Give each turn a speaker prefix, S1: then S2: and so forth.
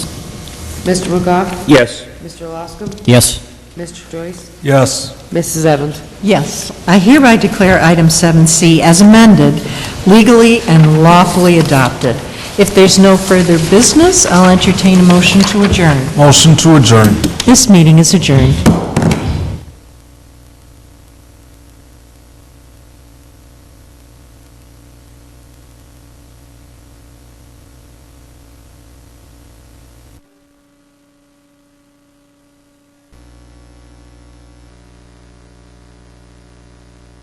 S1: Mr. McGough?
S2: Yes.
S1: Mr. Loscom?
S3: Yes.
S1: Mr. Joyce?
S4: Yes.
S1: Mrs. Evans?
S5: Yes, I hereby declare item 7C as amended, legally and lawfully adopted. If there's no further business, I'll entertain a motion to adjourn.
S4: Motion to adjourn.
S5: This meeting is adjourned.